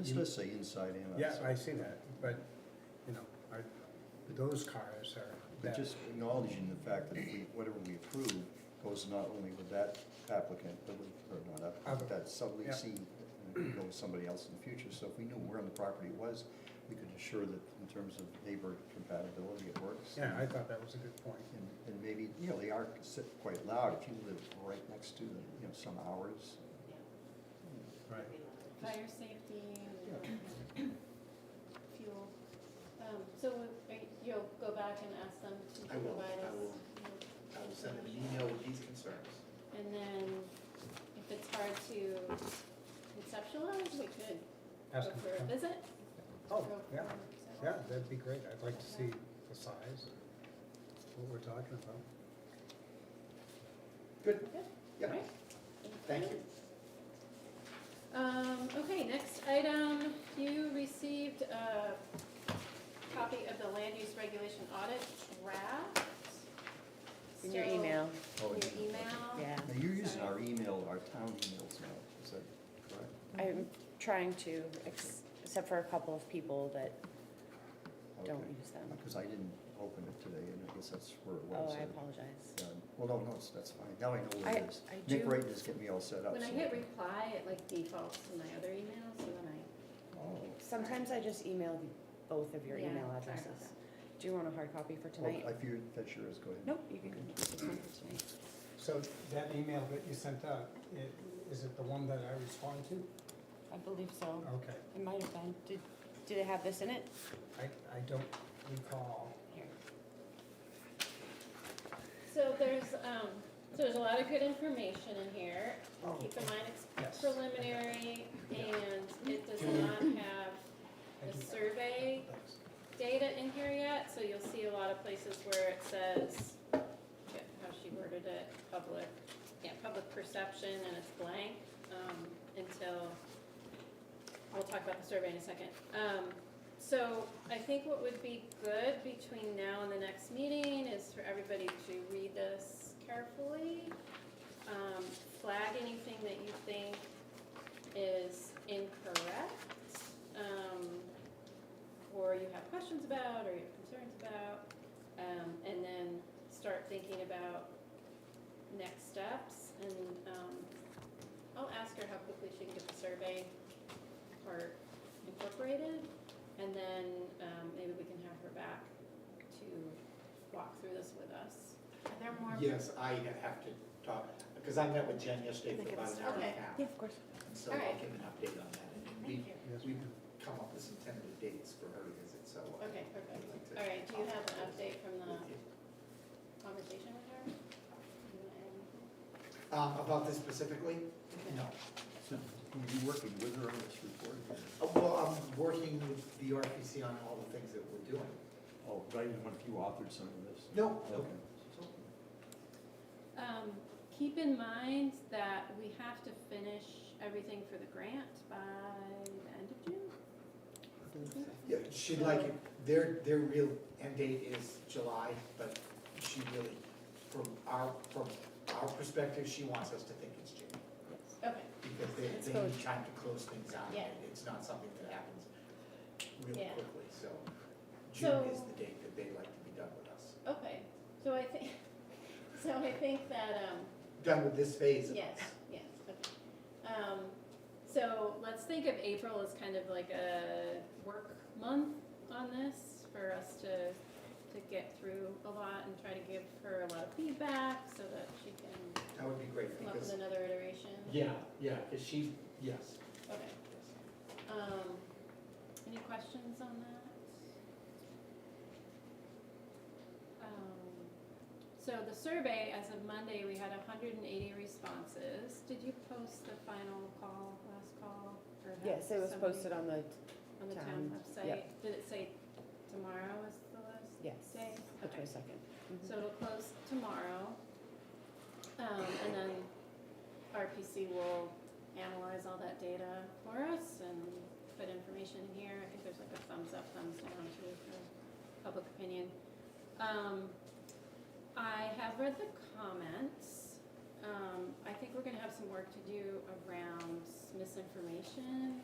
It's supposed to say inside and Yeah, I outside. see that, but, you know, I, those cars are, But that, just acknowledging the fact that we, whatever we approve goes not only with that applicant, but with, or not Other. applicant, that subleasee, and it could go with somebody else in the future. So if we knew where on the property it was, we could assure that in terms of neighbor compatibility, it works. yeah, I thought that was a good point. And and maybe, you know, they are consi- quite loud if you live right next to them, you know, some hours. Right. Fire safety Yeah. and fuel. Um, So we- you'll go back and ask them to I will, provide I us? will. I will send them an email with these concerns. And then if it's hard to conceptualize, we could go Ask them for to a come. visit. Oh, Go for yeah, a visit. yeah, that'd be great, I'd like to see the size, what we're talking about. Good, Good. Yeah. All right. thank you. Um, okay, next item, you received a copy of the land use regulation audit draft. In your So- email. Oh, Your yeah. email. Yeah. Now, you're using our e- email, our town emails now, is that correct? I'm trying to, ex- except for a couple of people that, Don't use them. Because I didn't open it today, and I guess that's where it was. oh, I and- apologize. and- Well, no, no, it's- that's fine, now I know where I- it is. I Nick do- Wright just get me all set up. When I so- hit reply, it like defaults to my other email, so then Oh. Sometimes I just email you both of your Yeah, email sorry about addresses. that. Do you want a hard copy for Oh, I tonight? fear that sure is, go ahead. Nope, you can keep this one for tonight. So that email that you sent out, i- is it the one that I respond to? I believe so. Okay, It might have been. Did, did it have this in it? I, I don't recall. Here. I. So there's, um, so there's a lot of good information in here. Oh, Keep in mind, it's yes. preliminary and it does not have I the do- survey Thanks. data in here yet, so you'll see a lot of places where it says, yeah, how she worded it, public, yeah, public perception, and it's blank, um, until, we'll talk about the survey in a second. Um, so I think what would be good between now and the next meeting is for everybody to read this carefully. Um, flag anything that you think is incorrect. Um, or you have questions about, or you have concerns about, um, and then start thinking about next steps. And um, I'll ask her how quickly she can get the survey part incorporated, and then um, maybe we can have her back to walk through this with us. Are there more? Yes, I have to talk, because I met with Jen yesterday for about an hour and a Okay. half. Yeah, of course. So I'll Alright. give an update on that. And we- Thank you. Yes, We've come up with some tentative dates for her visit, so. uh, Okay, I'd like perfect. to All right, do you have an talk update from the with you. conversation with her? You wanna add anything? Um, About this specifically? No. So, were you working with her on this report? Uh, Well, I'm working with the RPC on all the things that we're doing. Oh, but I didn't want if you authored some of this. No. Okay. Um, keep in mind that we have to finish everything for the grant by the end of June. Mm-hmm. Yeah, she'd like, it. their, their real end date is July, but she really, from our, from our perspective, she wants us to think it's June. Okay. Because they, Let's they go. need time to close things out. Yeah. It's not something that happens really Yeah. quickly, so So- June is the date that they like to be done with us. Okay, so I think, so I think that, um, Done with this phase of us. yes, yes, okay. Um, so let's think of April as kind of like a work month on this for us to, to get through a lot and try to give her a lot of feedback so that she can That would be great come up with because. another iteration. Yeah, yeah, because she, yes. Okay. yes. Um, any questions on that? Um, So the survey, as of Monday, we had hundred and eighty responses. Did you post the final call, last call? or have Yes, it was somebody posted on the, On the town town, website? yeah. Did it say tomorrow is the last day? yes, the Okay. twenty-second. So it'll close tomorrow. Um, and then RPC will analyze all that data for us and put information in here. I think there's like a thumbs up, thumbs down too for public opinion. Um, I have read the comments. Um, I think we're gonna have some work to do around misinformation